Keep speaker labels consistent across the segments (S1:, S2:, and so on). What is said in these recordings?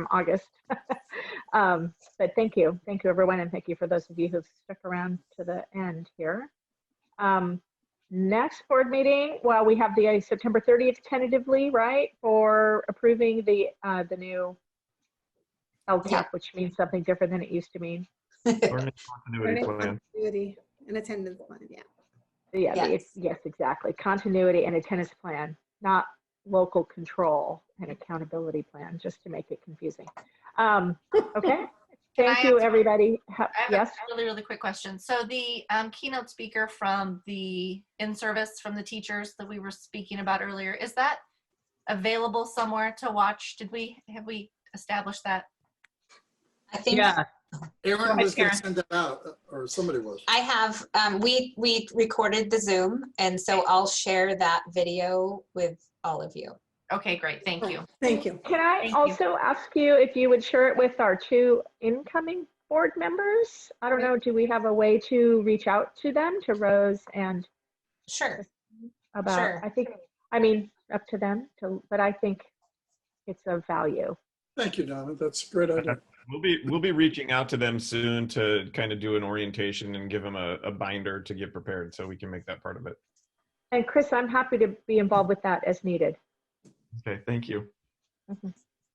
S1: from August. Um, But thank you, thank you, everyone, and thank you for those of you who've stuck around to the end here. Um, Next board meeting, well, we have the uh, September 30th tentatively, right, for approving the, uh, the new
S2: Yeah.
S1: LTAP, which means something different than it used to mean.
S3: Learning continuity
S4: Learning
S3: plan.
S4: Continuity and attendance plan, yeah.
S1: Yeah, the-
S2: Yes.
S1: yes, exactly. Continuity and attendance plan, not local control and accountability plan, just to make it confusing. Um, okay, thank
S2: I
S1: you,
S2: ask-
S1: everybody. Ha-
S2: I have
S1: Yes,
S2: a really, really quick question. So the um, keynote speaker from the in-service from the teachers that we were speaking about earlier, is that available somewhere to watch? Did we, have we established that?
S5: I think
S6: Yeah,
S5: Go
S7: Aaron
S5: ahead,
S7: was going to
S5: Karen.
S7: send it out, or somebody was.
S5: I have, um, we, we recorded the Zoom, and so I'll share that video with all of you.
S2: Okay, great. Thank you.
S4: Thank you.
S1: can I
S2: Thank you.
S1: also ask you if you would share it with our two incoming board members? I don't know, do we have a way to reach out to them, to Rose and
S5: Sure. Sure.
S1: about, I think, I mean, up to them, to, but I think it's of value.
S7: Thank you, Donna. That's a great idea.
S3: We'll be we'll be reaching out to them soon to kind of do an orientation and give them a, a binder to get prepared so we can make that part of it.
S1: And Chris, I'm happy to be involved with that as needed.
S3: Okay, thank you.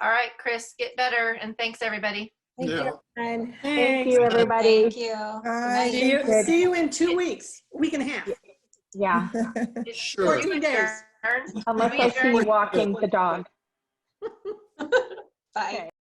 S2: All right, Chris, get better and thanks, everybody.
S5: Thank you.
S7: Yeah.
S4: And
S1: Thank you, everybody.
S5: Thank you. Good
S4: uh, See
S5: night.
S4: you- see you in two weeks, week and a half.
S1: Yeah,
S2: It's
S7: Sure.
S4: 14 days.
S2: Turn.
S1: unless I see you walking the dog.
S5: Bye.
S1: Okay.